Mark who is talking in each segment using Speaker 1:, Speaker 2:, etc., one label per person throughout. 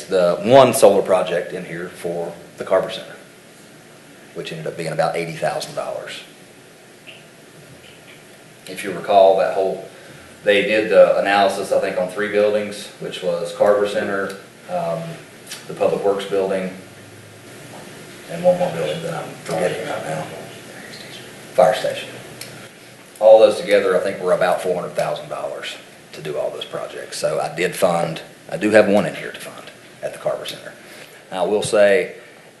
Speaker 1: the one solar project in here for the Carver Center, which ended up being about eighty thousand dollars. If you recall, that whole, they did the analysis, I think, on three buildings, which was Carver Center, um, the Public Works Building, and one more building that I'm forgetting right now. Fire station. All those together, I think, were about four hundred thousand dollars to do all those projects. So I did fund, I do have one in here to fund at the Carver Center. Now, I will say,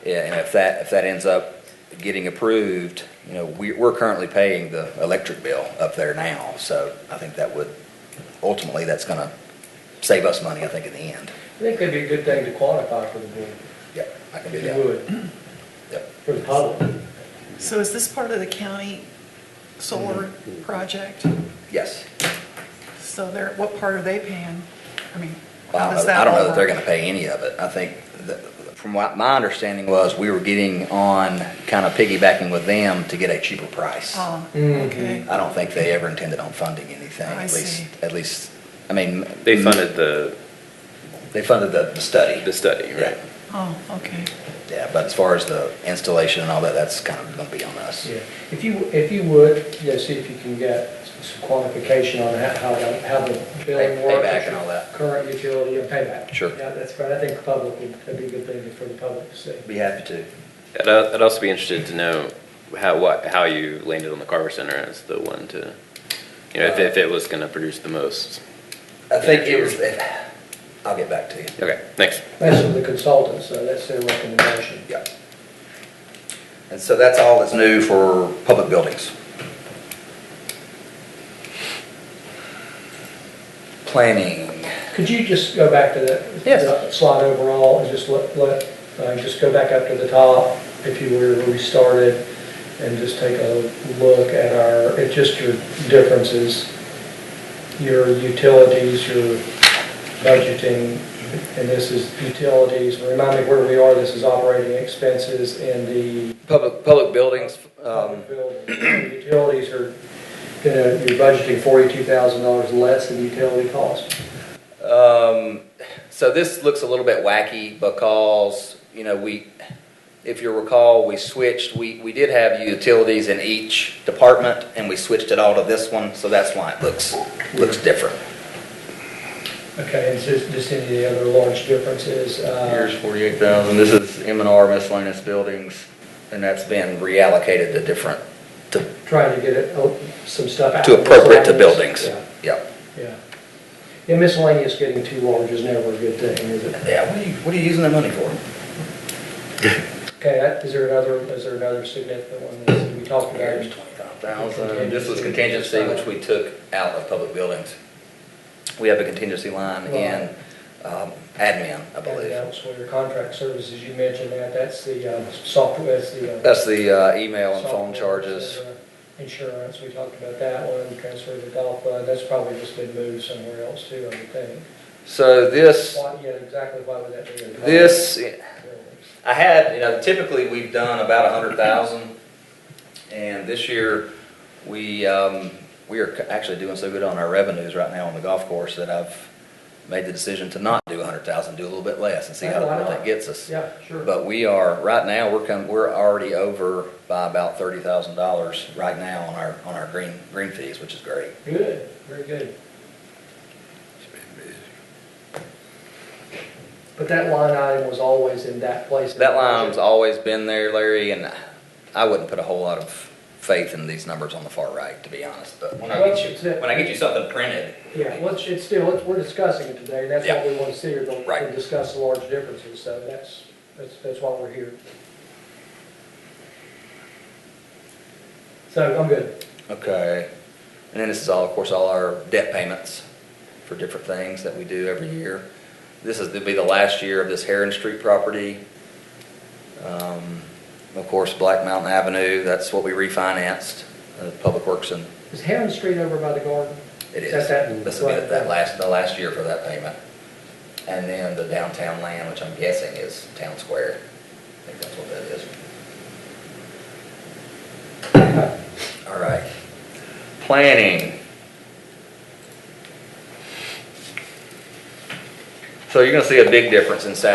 Speaker 1: yeah, and if that, if that ends up getting approved, you know, we, we're currently paying the electric bill up there now. So I think that would, ultimately, that's gonna save us money, I think, in the end.
Speaker 2: I think that'd be a good thing to qualify for the board,
Speaker 1: Yep, I can do
Speaker 2: if you
Speaker 1: that.
Speaker 2: would,
Speaker 1: Yep.
Speaker 2: for the public.
Speaker 3: So is this part of the county solar project?
Speaker 1: Yes.
Speaker 3: So they're, what part are they paying? I mean,
Speaker 1: Well,
Speaker 3: how
Speaker 1: I don't
Speaker 3: does
Speaker 1: know-
Speaker 3: that
Speaker 1: I don't know that
Speaker 3: all
Speaker 1: they're
Speaker 3: work?
Speaker 1: gonna pay any of it. I think, that- from what my understanding was, we were getting on, kind of piggybacking with them to get a cheaper price.
Speaker 3: Oh,
Speaker 2: Mhm.
Speaker 3: okay.
Speaker 1: I don't think they ever intended on funding anything,
Speaker 3: I
Speaker 1: at least,
Speaker 3: see.
Speaker 1: at least, I mean.
Speaker 4: They funded the,
Speaker 1: They funded the, the study.
Speaker 4: the study, right?
Speaker 1: Yeah.
Speaker 3: Oh, okay.
Speaker 1: Yeah, but as far as the installation and all that, that's kind of gonna be on us.
Speaker 2: Yeah, if you, if you would, you know, see if you can get some quantification on how, how the, how the billing
Speaker 1: Pay-
Speaker 2: works.
Speaker 1: payback and all that.
Speaker 2: Current utility and payback.
Speaker 1: Sure.
Speaker 2: Yeah, that's right, I think the public, would that'd be a good thing for the public to see.
Speaker 1: Be happy to.
Speaker 4: I'd, al- I'd also be interested to know how, what, how you landed on the Carver Center as the one to, you know, if, if it was gonna produce the most.
Speaker 1: I think it was, I'll get back to you.
Speaker 4: Okay, thanks.
Speaker 2: That's from the consultants, so that's their recommendation.
Speaker 1: Yeah. And so that's all that's new for public buildings. Planning.
Speaker 2: Could you just go back to that?
Speaker 1: Yes.
Speaker 2: the Slide overall, and just let, let, uh, just go back up to the top, if you were, where we started, and just take a look at our, at just your differences, your utilities, your budgeting, and this is utilities, remind me where we are, this is operating expenses and the
Speaker 1: Public, public buildings, um,
Speaker 2: building. Utilities are, you know, you're budgeting forty-two thousand dollars less than utility cost.
Speaker 1: um, so this looks a little bit wacky because, you know, we, if you recall, we switched, we, we did have utilities in each department and we switched it all to this one, so that's why it looks, looks different.
Speaker 2: Okay, and just, just any of the other large differences,
Speaker 1: Here's
Speaker 2: uh,
Speaker 1: forty-eight thousand, this is M and R miscellaneous buildings, and that's been reallocated to different, to,
Speaker 2: trying to get it, oh, some stuff out.
Speaker 1: to appropriate to
Speaker 2: Miscellaneous,
Speaker 1: buildings. Yeah,
Speaker 2: Yeah, yeah. Yeah, miscellaneous getting too large is never a good thing, is it?
Speaker 1: yeah, what are you, what are you using that money for?
Speaker 2: Okay, that- is there another, is there another significant one that we talked about?
Speaker 1: Here's twenty-five thousand, this was contingency, which we took out of public buildings. We have a contingency line in, um, admin, I
Speaker 2: And
Speaker 1: believe.
Speaker 2: elsewhere, contract services, you mentioned that, that's the uh, software, that's the. uh,
Speaker 1: That's the, uh, email and phone
Speaker 2: software,
Speaker 1: charges.
Speaker 2: uh, Insurance, we talked about that one, transfer to golf fund, that's probably just been moved somewhere else too, I would think.
Speaker 1: So this,
Speaker 2: Why, yeah, exactly why would that be? in-
Speaker 1: this, I had, you know, typically we've done about a hundred thousand, and this year, we, um, we are c- actually doing so good on our revenues right now on the golf course that I've made the decision to not do a hundred thousand, do a little bit less and see how
Speaker 2: Why
Speaker 1: far
Speaker 2: not?
Speaker 1: that gets us.
Speaker 2: Yeah, sure.
Speaker 1: But we are, right now, we're come, we're already over by about thirty thousand dollars right now on our, on our green, green fees, which is great.
Speaker 2: Good, very good. But that line item was always in that place.
Speaker 1: That line's always been there, Larry, and I wouldn't put a whole lot of faith in these numbers on the far right, to be honest, but when I get you, when I get you something printed.
Speaker 2: Yeah, well, it's- it's still, it's- we're discussing it today, that's
Speaker 1: Yeah.
Speaker 2: what we want to see, here, to
Speaker 1: Right.
Speaker 2: to discuss the large differences, so that's, that's, that's why we're here. So I'm good.
Speaker 1: Okay. And then this is all, of course, all our debt payments for different things that we do every year. This is, it'll be the last year of this Heron Street property. Um, Of course, Black Mountain Avenue, that's what we refinanced, uh, Public Works and,
Speaker 2: Is Heron Street over by the garden?
Speaker 1: it is.
Speaker 2: Is that that-
Speaker 1: This will be that last, the last year for that payment. And then the downtown land, which I'm guessing is Town Square. I think that's what that is. All right. Planning. So you're gonna see a big difference in salary